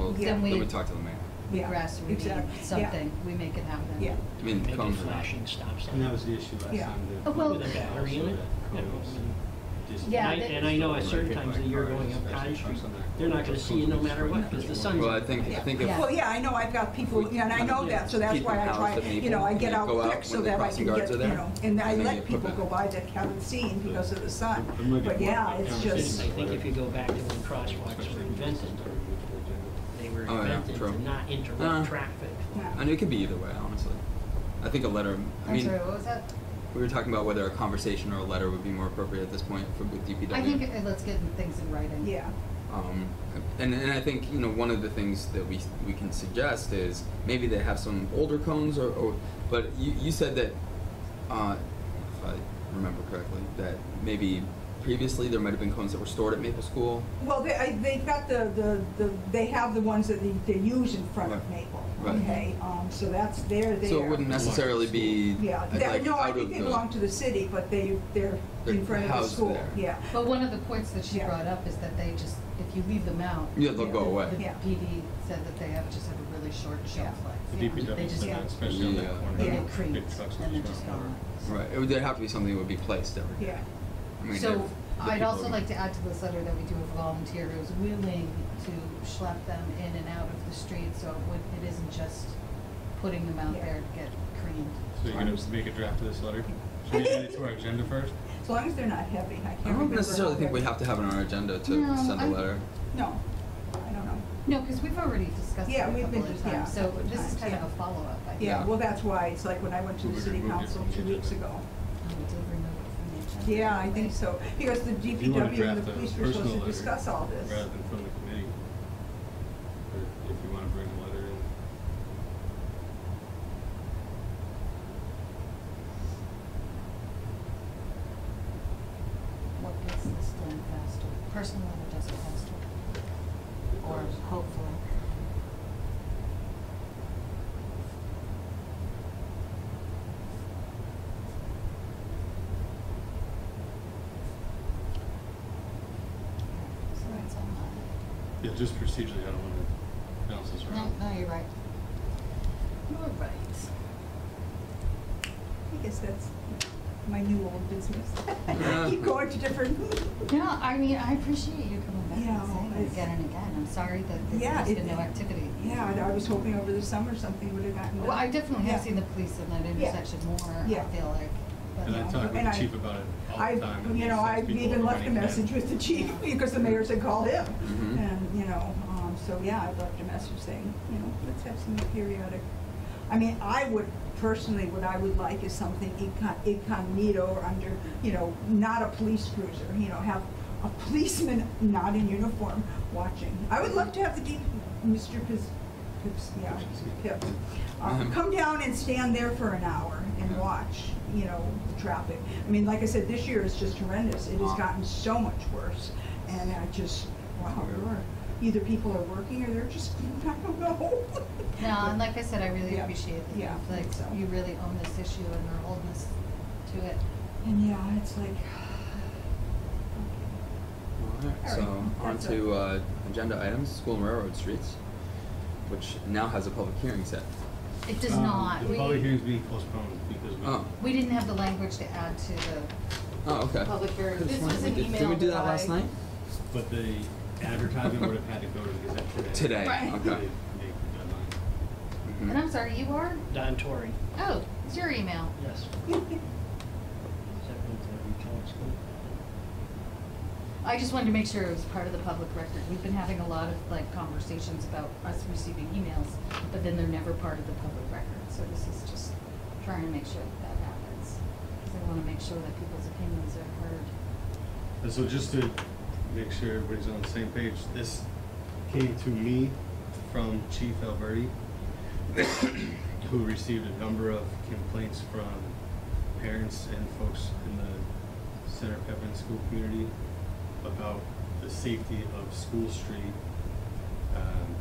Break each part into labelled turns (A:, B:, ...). A: Yeah.
B: Then
A: Then
B: we.
C: Then we talk to the mayor.
A: Yeah,
B: Grass rooting,
A: exactly. Yeah.
B: something, we make it happen.
A: Yeah.
C: I mean,
D: Maybe
C: cones are not-
D: flashing stops.
E: And that was the issue last
A: Yeah.
E: time. the-
B: Oh, well-
E: with the power,
D: Battery
E: so
D: unit?
E: that codes just-
B: Yeah,
D: And I-
B: that-
D: And I know at certain
E: Hit by
D: times of the year
E: cars,
D: going up
E: especially
D: Cottage Street,
E: trucks on that
D: they're not gonna
E: corridor.
D: see you no matter what, because the
E: Cones
D: sun's.
E: are
C: Well, I think, I
A: Yeah.
C: think if.
A: Well, yeah, I know, I've got people, you know, and I know that, so that's why I try, you know, I get out quick so that I can get, you know, and I let people go by that haven't seen because of the sun. But yeah, it's
D: I
A: just,
D: think if you go back to when crosswalks were
E: especially
D: invented, they were
C: Oh, yeah,
D: invented
C: true.
D: to not
C: Uh.
D: interrupt traffic.
A: yeah.
C: I mean, it could be either way, honestly. I think a letter, I
B: I'm
C: mean,
B: sorry, what was that?
C: we were talking about whether a conversation or a letter would be more appropriate at this point for, with DPW.
B: I think, uh, let's get things in writing.
A: yeah,
C: Um, and, and I think, you know, one of the things that we, we can suggest is maybe they have some older cones or, or but you, you said that, uh, if I remember correctly, that maybe previously there might have been cones that were stored at Maple School.
A: Well, they, I, they've got the, the, the, they have the ones that they, they use in front of
C: Right.
A: Maple,
C: Right.
A: okay? Um, so that's, they're there.
C: So it wouldn't necessarily be
A: Yeah,
C: uh,
A: they're-
C: like
A: no, I
C: out of
A: think they
C: the-
A: belong to the city, but they, they're in
C: They're
A: front of the
C: housed
A: school,
C: there.
A: yeah.
B: But one of the points that she
A: Yeah.
B: brought up is that they just, if you leave them out.
C: Yeah, they'll go
B: the-
C: away.
B: The
A: Yeah.
B: PD said that they have, just have a really short shelf
A: Yeah.
B: life.
E: The
A: Yeah.
B: They
E: DPW
B: just
E: said
B: get-
E: that, especially on
C: Yeah.
E: that corner.
B: They
A: Yeah.
B: get
E: Big
B: creates
E: trucks
B: and they're
E: just
B: just
E: going over.
B: gone.
C: Right, it would, there'd have to be something that would be placed every day.
A: Yeah,
C: I mean, if
B: So
C: the
B: I'd
C: people
B: also
C: were-
B: like to add to this letter that we do have a volunteer who's willing to schlep them in and out of the street, so it would- it isn't just putting them out
A: Yeah.
B: there to get creamed.
E: So you're gonna make a draft of this letter? Should we add it to our agenda first?
A: as long as they're not heavy, I can't
C: I don't
A: remember
C: necessarily
A: how
C: think we
A: heavy-
C: have to have it on our agenda to
B: No,
C: send a
B: I'm-
C: letter.
A: No, I don't know.
B: No, because we've already discussed it a
A: Yeah, we've
B: couple
A: been-
B: of
A: yeah,
B: times, so
A: couple of
B: this is
A: times,
B: kind of
A: yeah.
B: a follow-up, I think.
A: Yeah,
C: Yeah.
A: well, that's why, it's like when I went to
E: Well,
A: the
E: we
A: city
E: removed it
A: council
E: from
A: two
E: the
A: weeks
E: agenda.
A: ago.
B: Oh, we did remove it from the agenda.
A: Yeah, I think so, because the
E: If you wanna
A: DPW and
E: draft
A: the
E: a
A: police were supposed
E: personal
A: to
E: letter
A: discuss all this.
E: Rather than from the committee, or if you wanna bring a letter in.
B: What gets this done faster? Personal letter does it faster, or hopefully. So that's all mine.
E: Yeah, just procedurally, I don't wanna bounce this around.
B: No, no, you're right. You're right.
A: I guess that's my new old business.
C: Yeah.
A: Keep going to different,
B: No, I mean, I appreciate you coming back
A: Yeah,
B: and saying it
A: it's-
B: again and again. I'm sorry that
A: Yeah,
B: there's been
A: it-
B: no activity.
A: yeah, and I was hoping over the summer something would have gotten done.
B: Well, I definitely have
A: Yeah.
B: seen the police in that
A: Yeah.
B: intersection more,
A: Yeah.
B: I feel like. but- um,
E: And I
A: Yeah,
E: talk with
A: and
E: the
A: I-
E: chief about it all
A: I,
E: the time. and
A: you
E: he
A: know,
E: sends
A: I
E: people
A: even
E: over
A: left a
E: money back.
A: message with the chief, because the mayor said call him.
C: Mhm.
A: And, you know, um, so yeah, I left a message saying, you know, let's have some periodic. I mean, I would, personally, what I would like is something incog- incognito or under, you know, not a police cruiser, you know, have a policeman not in uniform watching. I would love to have the D, Mr. Pips, Pips, yeah, Pips, uh,
C: Mhm.
A: come down and stand there for an hour and
C: Yeah.
A: watch, you know, the traffic. I mean, like I said, this year is just horrendous. It has
C: Wow.
A: gotten so much worse. And I just, wow,
C: Weird.
A: we're- either people are working or they're just, I don't know.
B: No, and like I said, I really
A: Yeah.
B: appreciate that
A: Yeah,
B: you've, like,
A: so.
B: you really own this issue and are holding us to it.
A: And yeah, it's like,
C: Alright,
A: All
C: so
A: right,
C: on
A: that's
C: to uh, agenda items, school and railroad streets, which now has a public hearing set.
B: It does
E: Um,
B: not,
E: The public
B: we,
E: hearing's being postponed because we.
C: Oh,
B: we didn't have the language to add to the,
C: oh, okay.
F: Public hearing.
C: Could've
F: This
C: sworn
F: was
C: we
F: an
C: did- Did
F: email
C: we do that
F: that
C: last
F: I-
C: night?
E: But the advertisement would have had to go to the Gazette today.
C: Today,
B: Right.
E: They-
C: okay.
E: they could deadline.
C: Mhm.
B: and I'm sorry, you are?
D: Don Torrey,
B: Oh, it's your email.
D: yes. Is that what we call it, school?
B: I just wanted to make sure it was part of the public record. We've been having a lot of, like, conversations about us receiving emails, but then they're never part of the public record, so this is just trying to make sure that that happens. Because I want to make sure that people's opinions are heard.
E: And so just to make sure everybody's on the same page, this came to me from Chief Alberti, who received a number of complaints from parents and folks in the Center Pepin School community about the safety of School Street, um,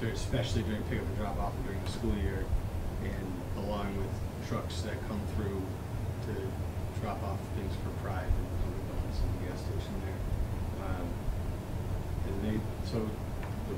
E: dur- especially during pickup and drop off and during the school year, and along with trucks that come through to drop off things for Pride and other events in the gas station there. Um, And they, so